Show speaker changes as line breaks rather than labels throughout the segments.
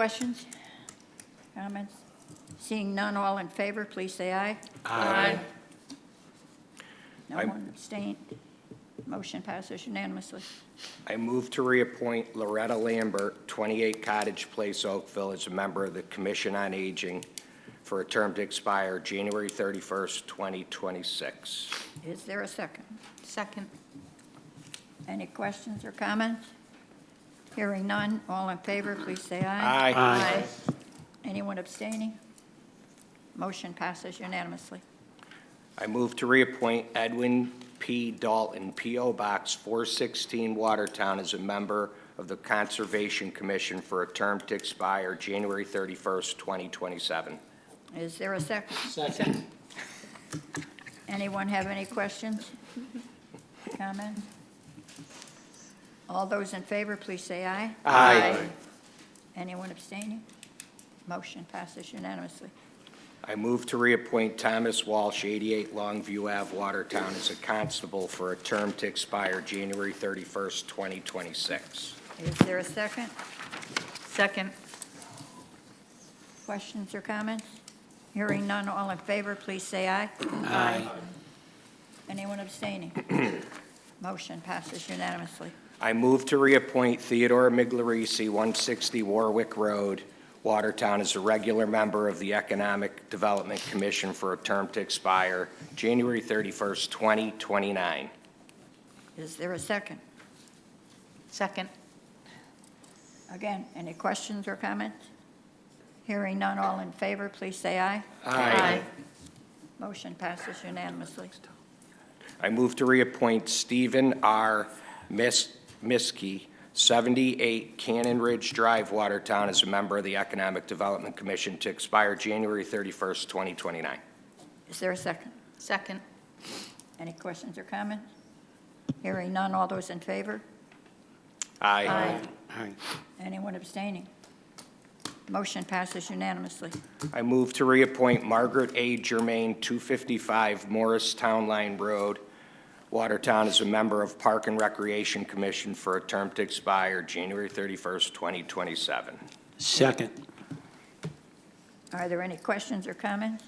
Questions? Comments? Seeing none, all in favor, please say aye.
Aye.
No
I'm-
one abstained. Motion passes unanimously.
I move to reappoint Loretta Lambert, 28 Cottage Place, Oakville, as a member of the Commission on Aging for a term to expire January 31st, 2026.
Is there a second?
Second.
Any questions or comments? Hearing none, all in favor, please say aye.
Aye.
Aye.
Anyone abstaining? Motion passes unanimously.
I move to reappoint Edwin P. Dalton, P.O. Box 416, Watertown, as a member of the Conservation Commission for a term to expire January 31st, 2027.
Is there a second? Second. Anyone have any questions? Comments? All those in favor, please say aye.
Aye.
Anyone abstaining? Motion passes unanimously.
I move to reappoint Thomas Walsh, 88 Longview Ave, Watertown, as a constable for a term to expire January 31st, 2026.
Is there a second?
Second.
Questions or comments? Hearing none, all in favor, please say aye. Aye. Anyone abstaining? Motion passes unanimously.
I move to reappoint Theodore Miglerisi, 160 Warwick Road, Watertown, as a regular member of the Economic Development Commission for a term to expire January 31st, 2029.
Is there a second?
Second.
Again, any questions or comments? Hearing none, all in favor, please say aye. Motion passes unanimously.
I move to reappoint Stephen R. Mis- Miskey, 78 Cannon Ridge Drive, Watertown, as a member of the Economic Development Commission to expire January 31st, 2029.
Is there a second?
Second.
Any questions or comments? Hearing none, all those in favor?
Aye.
Anyone abstaining? Motion passes unanimously.
I move to reappoint Margaret A. Germain, 255 Morris Town Line Road, Watertown, as a member of Park and Recreation Commission for a term to expire January 31st, 2027.
Second.
Are there any questions or comments?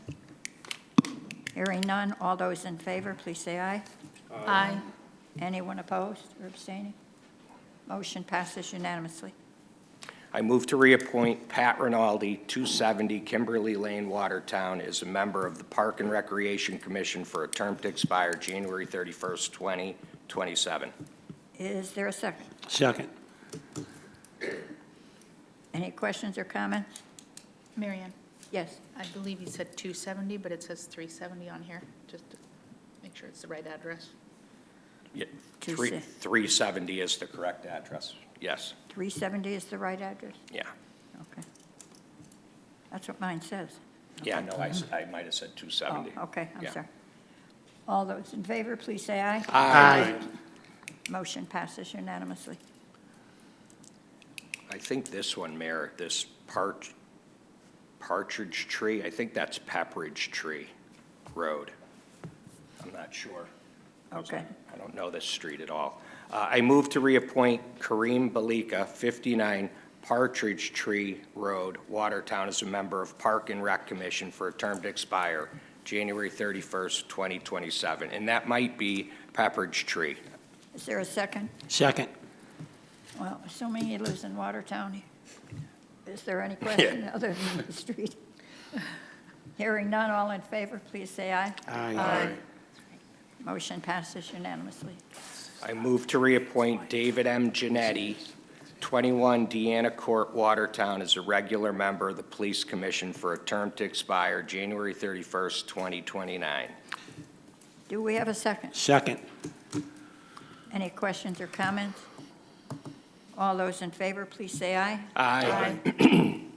Hearing none, all those in favor, please say aye.
Aye.
Anyone opposed or abstaining? Motion passes unanimously.
I move to reappoint Pat Rinaldi, 270 Kimberly Lane, Watertown, as a member of the Park and Recreation Commission for a term to expire January 31st, 2027.
Is there a second?
Second.
Any questions or comments?
Mary Ann,
Yes,
I believe you said 270, but it says 370 on here, just to make sure it's the right address.
Yeah,
Two
three-
se-
370 is the correct address. Yes,
370 is the right address?
yeah.
Okay. That's what mine says.
Yeah, no, I s- I might have said
Oh,
270.
okay, I'm
Yeah.
sorry. All those in favor, please say aye.
Aye.
Motion passes unanimously.
I think this one, Mayor, this Part- Partridge Tree, I think that's Pepperidge Tree Road. I'm not sure.
Okay.
I don't know this street at all. Uh, I move to reappoint Kareem Balika, 59 Partridge Tree Road, Watertown, as a member of Park and Rec Commission for a term to expire January 31st, 2027. And that might be Pepperidge Tree.
Is there a second?
Second.
Well, assuming he lives in Watertown, is there any question other than the street? Hearing none, all in favor, please say aye.
Aye.
Motion passes unanimously.
I move to reappoint David M. Genetti, 21 Deanna Court, Watertown, as a regular member of the Police Commission for a term to expire January 31st, 2029.
Do we have a second?
Second.
Any questions or comments? All those in favor, please say aye.
Aye.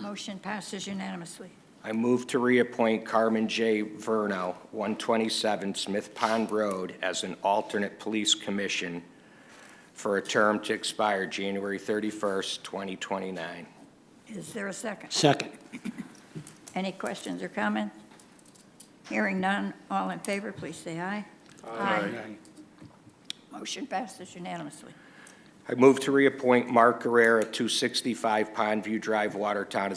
Motion passes unanimously.
I move to reappoint Carmen J. Verno, 127 Smith Pond Road, as an alternate police commission for a term to expire January 31st, 2029.
Is there a second?
Second.
Any questions or comments? Hearing none, all in favor, please say aye.
Aye.
Motion passes unanimously.
I move to reappoint Mark Guerrera, 265 Pondview Drive, Watertown, as